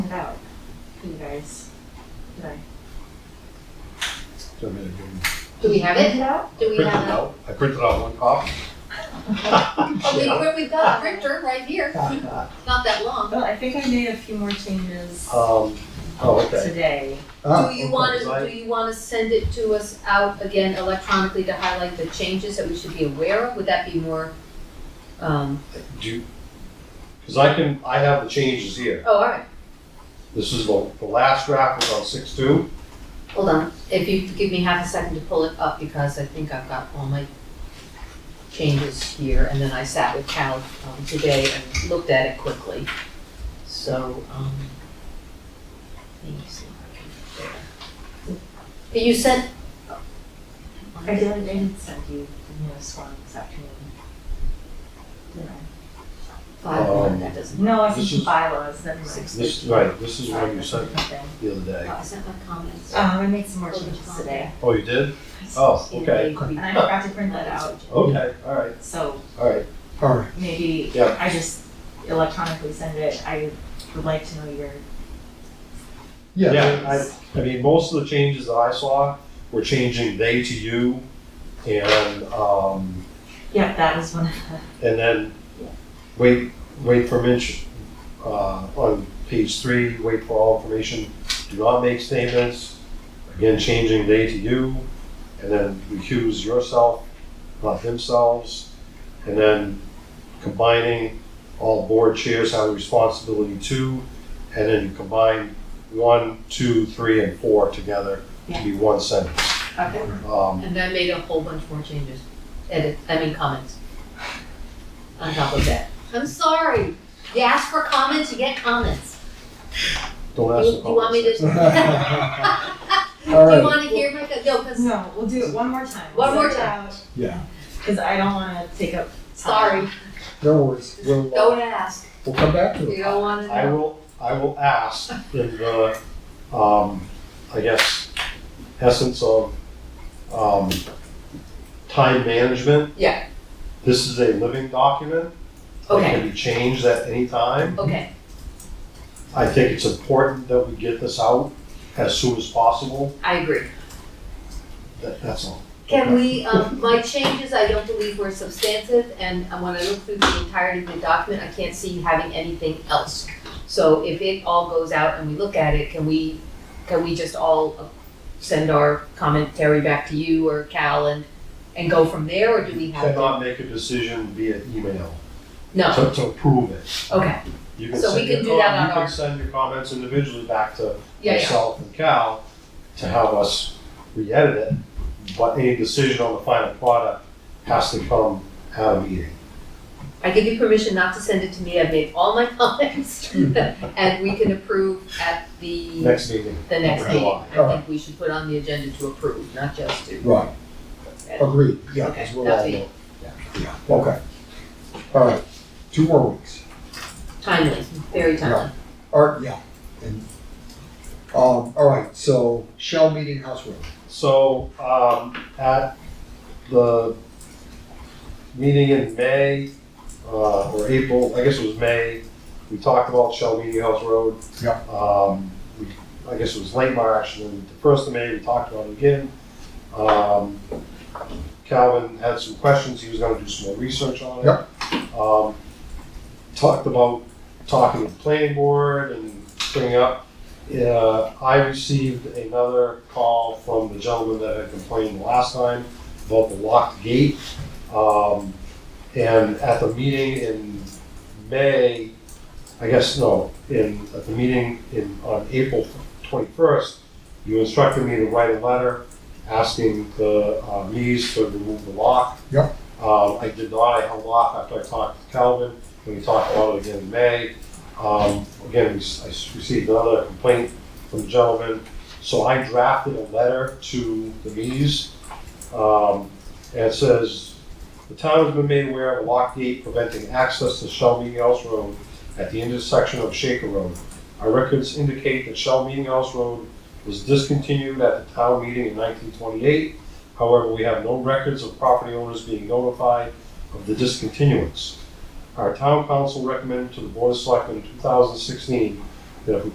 sent out to you guys today. So I mean, I Do we have it? Sent out? Do we printed have it it? out, I printed out one copy. Oh, we, we- we've got a printer right here, not that long. Well, I think I made a few more changes Um, oh, okay. Uh, today. Do you want to, do you want to send it to us out again electronically to highlight the changes that we should be aware of? Would that be more, um, Do, because I can, I have the changes here. oh, all right, This is the, the last draft was on six two. hold on. If you could give me half a second to pull it up because I think I've got all my changes here. And then I sat with Cal um, today and looked at it quickly. So, um, let me see if I can, there. You sent, uh, I did, I did send you the newest one this afternoon. Did I? Five, one, Um, that doesn't. No, I This sent you is- bylaws, never mind. This, right, this is what you sent me Um, the other day. Oh, I sent my comments. I made some more changes today. Oh, you did? Oh, okay, And I forgot to print that out, okay, all right, so all right. All right. maybe Yeah. I just electronically send it. I would like to know your Yeah, I, I mean, most of the changes that I saw were changing they to you and, um, Yeah, that was one of And then wait, wait for mention, uh, on page three, wait for all information, do not make statements. Again, changing they to you, and then recuse yourself, not themselves. And then combining all board chairs have a responsibility to, and then you combine one, two, three, and four together to be one sentence. the, okay. Um, And I made a whole bunch more changes, edit, I mean comments. On top of that. I'm sorry, you ask for comments, you get comments. don't You, ask the you want me to? comments. Do you All right. wanna hear my, no, cause, No, we'll do it one more time. One more Yeah. Because I don't want to take up. time. sorry, No worries. We'll, uh, don't ask, we'll come back to you it. don't wanna I know. will, I will ask in the, um, I guess, essence of, um, time management. Yeah. This is a living document. It Okay, can be changed at any time. okay, I think it's important that we get this out as soon as possible. I agree. That, that's all. Can we, um, my changes, I don't believe were substantive, and uh, when I look through the entirety of the document, I can't see having anything else. So if it all goes out and we look at it, can we, can we just all uh, send our commentary back to you or Cal and, and go from there, or do we have? to- Cannot make a decision via email No, to, to approve it. okay, You can So we send your can do com- that on You our- can send your comments individually back to yeah, yeah, myself and Cal to help us re-edit it, but any decision on the final product has to come out of meeting. I give you permission not to send it to me, I've made all my comments, and we can approve at the, Hmm. Next meeting, the next meeting. July. I think we should put on the agenda to approve, not just to. Right. Agreed. Yeah, Okay, because we're all. that'll be- Yeah. yeah, Okay. All right. Two more weeks. Timely, very timely. All right. Yeah. And um. All right. So Shell Meeting House Road. So, um, at the meeting in May, uh, or April, I guess it was May, we talked about Shell Meeting House Road. Yep. Um, we, I guess it was late March, and then the first of May, we talked about it again. Um, Calvin had some questions, he was gonna do some more research on it. Yep. Um, talked about talking to the planning board and bringing up uh, I received another call from the gentleman that had complained last time about the locked gate. Um, and at the meeting in May, I guess, no, in, at the meeting in, on April twenty-first, you instructed me to write a letter asking the, uh, Lees to remove the lock. Yep. Um, I did not, I held off after I talked to Calvin, and we talked about it again in May. Um, again, we s- I s- received another complaint from the gentleman, so I drafted a letter to the Lees. Um, and it says, the town has been made aware of a locked gate preventing access to Shell Meeting House Road at the intersection of Shaker Road. Our records indicate that Shell Meeting House Road was discontinued at the town meeting in nineteen twenty-eight. However, we have no records of property owners being notified of the discontinuance. Our town council recommended to the board of selectmen in two thousand sixteen that if we